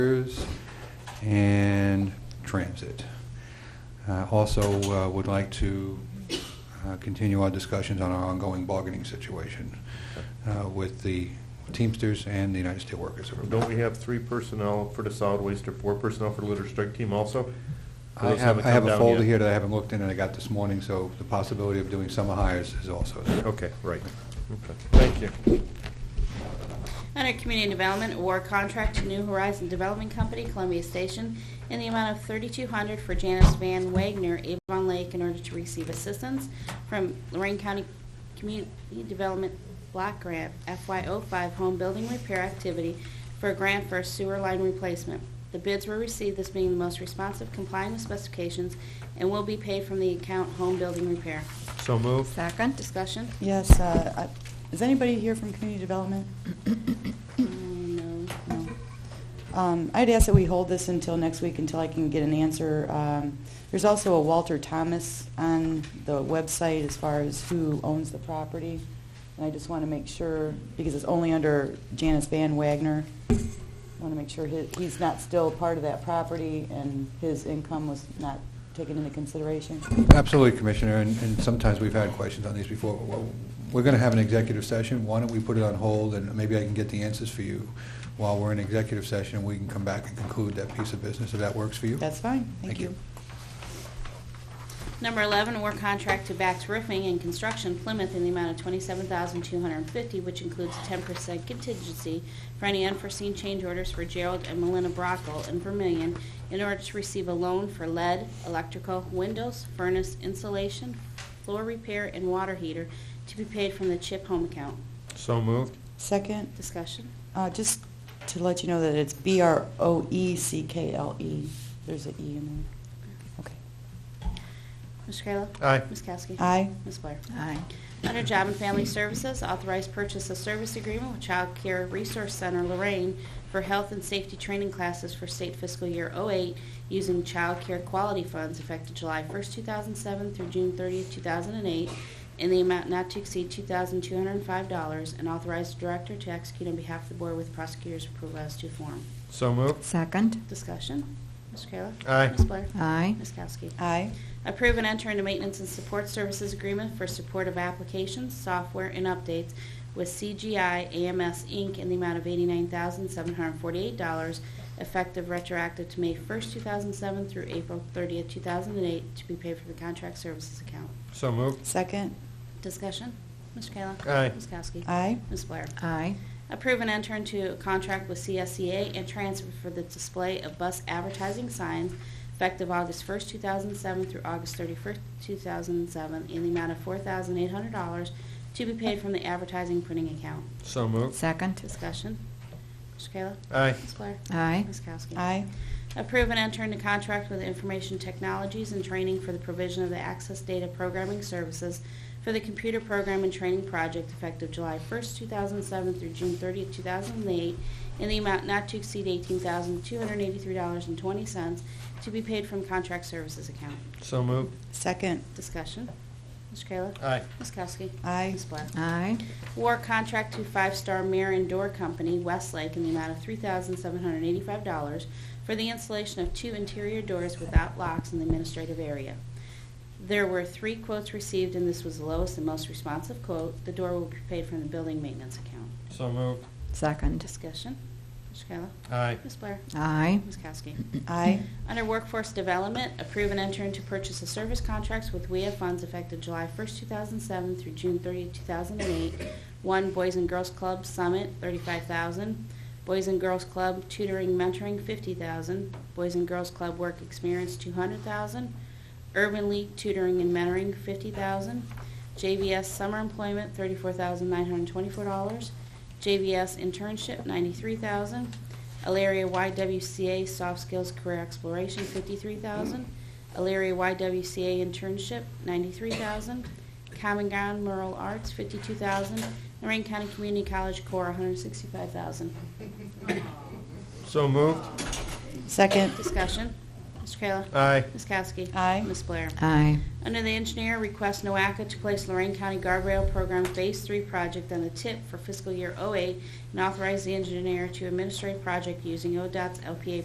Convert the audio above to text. Cruise and transit. Uh, Also, uh, would like to uh, continue our discussions on our ongoing bargaining situation uh, with the Teamsters and the United Steelworkers. Don't we have three personnel for the solid waste or four personnel for the litter strike team also? I Those have, haven't I have come a down folder yet. here that I haven't looked in and I got this morning, so the possibility of doing summer hires is also there. Okay, right. Okay, Thank you. Under Community Development, award contract to New Horizon Development Company, Columbia Station, in the amount of $3,200 for Janice Van Wagner, Avon Lake, in order to receive assistance from Lorraine County Community Development Block Grant FY05 Home Building Repair Activity for a grant for a sewer line replacement. The bids were received, this being the most responsive complying with specifications, and will be paid from the account Home Building Repair. So moved. Second. Discussion? Yes, uh, I- is anybody here from community development? Um, No. No. Um, I'd ask that we hold this until next week, until I can get an answer. Um, There's also a Walter Thomas on the website as far as who owns the property, and I just want to make sure, because it's only under Janice Van Wagner, I want to make sure he- he's not still part of that property and his income was not taken into consideration. Absolutely, Commissioner, and and sometimes we've had questions on these before. Well, We're going to have an executive session, why don't we put it on hold, and maybe I can get the answers for you while we're in executive session, and we can come back and conclude that piece of business, if that works for you? That's fine, Thank thank you. you. Number 11, award contract to Bax Roofing and Construction Plymouth in the amount of 27250 which includes a 10% contingency for any unforeseen change orders for Gerald and Melinda Brockle in Vermillion in order to receive a loan for lead, electrical, windows, furnace, insulation, floor repair, and water heater to be paid from the CHIP home account. So moved. Second? Discussion? Uh, Just to let you know that it's E B-R-O-E-C-K-L-E. There's an E in there. Okay. Mr. Kayla? Aye. Ms. Kowski? Aye. Ms. Blair? Aye. Under Job and Family Services, authorized purchase of service agreement with Child Care Resource Center Lorraine for health and safety training classes for state fiscal year '08 using Child Care Quality Funds effective July 1st, 2007 through June 30th, 2008, in the amount not to exceed $2,205, and authorize the director to execute on behalf of the board with prosecutor's approval as to form. So moved. Second. Discussion. Mr. Kayla? Aye. Ms. Blair? Aye. Ms. Kowski? Aye. Approve and enter into maintenance and support services agreement for support of applications, software, and updates with CGI AMS Inc. in the amount of $89,748, effective retroactive to May 1st, 2007 through April 30th, 2008, to be paid from the contract services account. So moved. Second? Discussion? Mr. Kayla? Aye. Ms. Kowski? Aye. Ms. Blair? Aye. Approve and enter into a contract with CSEA and transfer for the display of bus advertising signs effective August 1st, 2007 through August 31st, 2007, in the amount of $4,800 to be paid from the advertising printing account. So moved. Second. Discussion. Mr. Kayla? Aye. Ms. Blair? Aye. Ms. Kowski? Aye. Approve and enter into contract with Information Technologies and Training for the provision of the Access Data Programming Services for the Computer Program and Training Project effective July 1st, 2007 through June 30th, 2008, in the amount not to exceed $18,283.20 to be paid from contract services account. So moved. Second? Discussion. Mr. Kayla? Aye. Ms. Kowski? Aye. Ms. Blair? Aye. War contract to Five Star Mirror and Door Company, Westlake, in the amount of $3,785 for the installation of two interior doors without locks in the administrative area. There were three quotes received, and this was the lowest and most responsive quote. The door will be paid from the building maintenance account. So moved. Second. Discussion. Mr. Kayla? Aye. Ms. Blair? Aye. Ms. Kowski? Aye. Under Workforce Development, approve and enter into purchase of service contracts with WEA funds effective July 1st, 2007 through June 30th, 2008. One, Boys and Girls Club Summit, 35000 Boys and Girls Club Tutoring Mentoring, 50000 Boys and Girls Club Work Experience, 200000 Urban League Tutoring and Mentoring, 50000 JVS Summer Employment, $34,924. JVS Internship, 93000 Alaria YWCA Soft Skills Career Exploration, fifty-three thousand. Alaria YWCA Internship, ninety-three thousand. Common Ground Rural Arts, fifty-two thousand. Lorraine County Community College Corps, one hundred sixty-five thousand. So moved. Second? Discussion. Mr. Kayla. Aye. Ms. Kowski. Aye. Ms. Blair. aye, Under the engineer, request NOACA to place Lorraine County Guardrail Program Phase 3 project on the tip oh for fiscal year '08 and authorize the engineer to administer a project using ODOT's LPA